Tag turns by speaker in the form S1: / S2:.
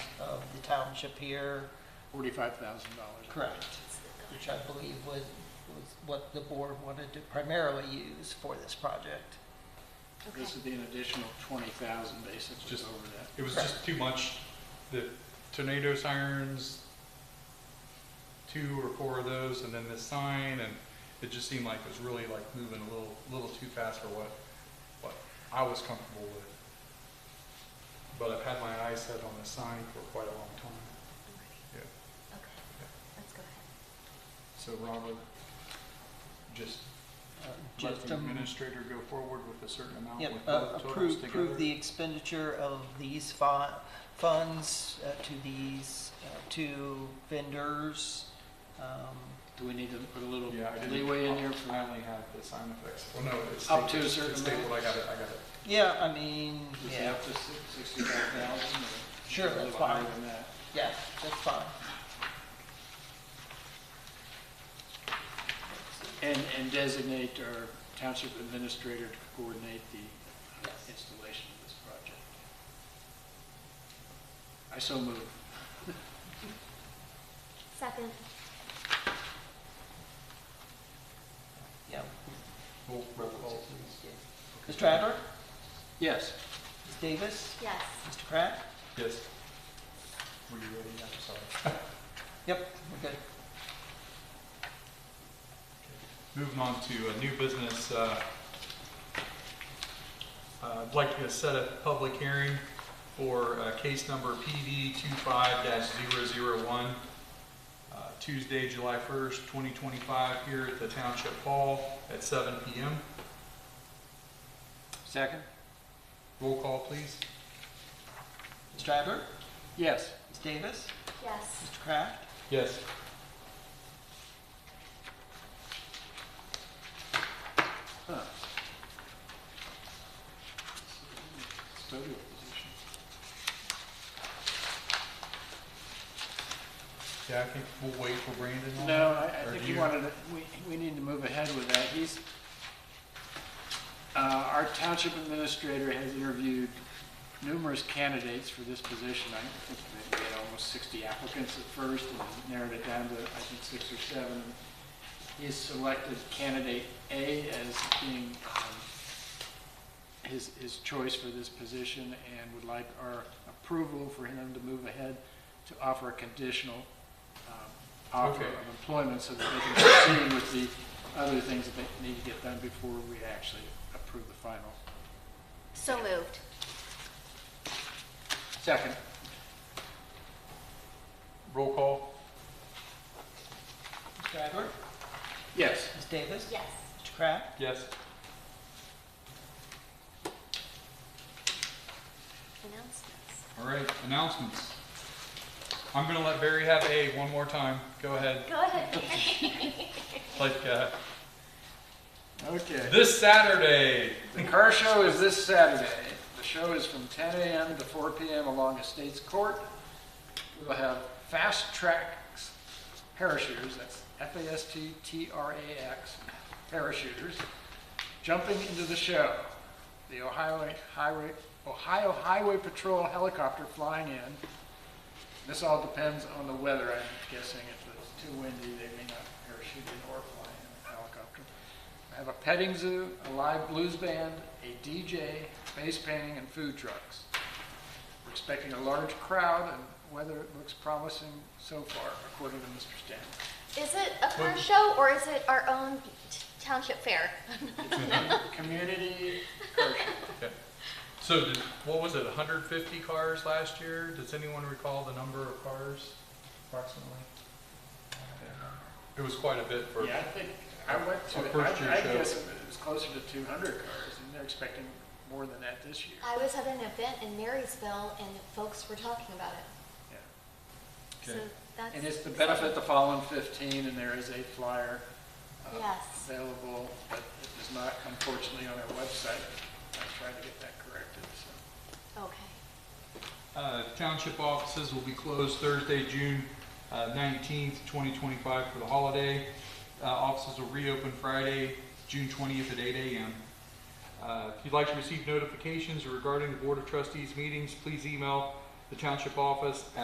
S1: the township here,
S2: Forty-five thousand dollars.
S1: correct? Which I believe was, was what the board wanted to primarily use for this project.
S3: Okay.
S2: This would be an additional twenty thousand basically
S4: Just-
S2: over that.
S4: It was just too much, the tornado sirens, two or four of those, and then this sign, and it just seemed like it was really like moving a little, little too fast for what, what I was comfortable with. But I've had my eyes set on the sign for quite a long time,
S3: Okay,
S4: yeah.
S3: okay. Let's go ahead.
S4: So Robert, just
S1: Uh,
S4: let
S1: Just
S4: the
S1: um,
S4: administrator go forward with a certain amount
S1: yeah,
S4: with
S1: uh,
S4: both totals
S1: approve, approve
S4: together.
S1: the expenditure of these fi- funds uh, to these uh, two vendors. Um,
S2: Do we need to put a little
S4: Yeah, I didn't-
S2: leeway in there
S4: I
S2: for,
S4: only have the sign effects, well, no, it's.
S2: Up to a
S4: stapled. It's
S2: certain
S4: stapled.
S2: amount.
S4: I got it, I got it.
S1: Yeah, I mean,
S2: is it
S1: yeah,
S2: up to sixty-five thousand?
S1: Sure,
S2: A
S1: that's
S2: little
S1: fine.
S2: higher than that.
S1: yeah, that's fine.
S2: And, and designate our township administrator to coordinate the uh,
S1: Yes.
S2: installation of this project. I so move.
S3: Second.
S1: Yeah.
S4: Roll roll call, please.
S1: Ms. Stradler?
S2: Yes.
S1: Ms. Davis?
S3: Yes.
S1: Mr. Pratt?
S4: Yes. Were you ready? I'm sorry.
S1: Yep, we're good.
S4: Moving on to a new business. uh, uh, I'd like to set a public hearing for uh, case number PD 25-001, uh, Tuesday, July 1st, 2025, here at the Township Hall at 7 PM.
S2: Second?
S4: Roll call, please.
S1: Ms. Stradler?
S2: Yes.
S1: Ms. Davis?
S3: Yes.
S1: Mr. Pratt?
S4: Yes.
S2: Huh. Custodial position.
S4: Yeah, I think we'll wait for Brandon on that.
S2: No, I, I
S4: Or
S2: think
S4: do
S2: you wanted, to- we, we need to move ahead with that. He's, uh, our township administrator has interviewed numerous candidates for this position. I think that we had almost sixty applicants at first and narrowed it down to, I think, six or seven. He has selected candidate A as being, um, his, his choice for this position and would like our approval for him to move ahead to offer a conditional, um, offer
S4: Okay.
S2: of employment so that they can proceed with the other things that they need to get done before we actually approve the final.
S3: So moved.
S2: Second.
S4: Roll call?
S1: Ms. Stradler?
S2: Yes.
S1: Ms. Davis?
S3: Yes.
S1: Mr. Pratt?
S4: Yes.
S3: Announcements.
S4: All right, announcements. I'm gonna let Barry have A one more time. Go ahead.
S3: Go ahead.
S4: Like, uh,
S2: Okay.
S4: this Saturday,
S2: The car show is this Saturday. The show is from 10 a.m. to 4 p.m. along Estates Court. We'll have Fast Tracks Parachuters, that's F-A-S-T-T-R-A-X, parachuters, jumping into the show. The Ohio Highway, Ohio Highway Patrol helicopter flying in. This all depends on the weather, I'm guessing. If it's too windy, they may not parachute in or fly in a helicopter. I have a petting zoo, a live blues band, a DJ, face painting, and food trucks. We're expecting a large crowd, and weather looks promising so far, according to Mr. Stanley.
S3: Is it a car show or is it our own t- township fair?
S2: Community car show.
S4: so did, what was it, 150 cars last year? Does anyone recall the number of cars approximately? It was quite a bit for,
S2: Yeah, I think, I went to,
S4: Our
S2: it.
S4: first year
S2: I I
S4: show.
S2: guess it was closer to 200 cars, and they're expecting more than that this year.
S3: I was at an event in Marysville and folks were talking about it.
S2: Yeah.
S3: So
S4: Okay.
S3: that's.
S2: And it's to benefit the fallen 15, and there is a flyer uh,
S3: Yes.
S2: available, but it is not unfortunately on our website. I tried to get that corrected, so.
S3: Okay.
S4: uh, township offices will be closed Thursday, June uh, 19th, 2025 for the holiday. Uh, offices will reopen Friday, June 20th at 8 AM. Uh, If you'd like to receive notifications regarding the Board of Trustees meetings, please email the township office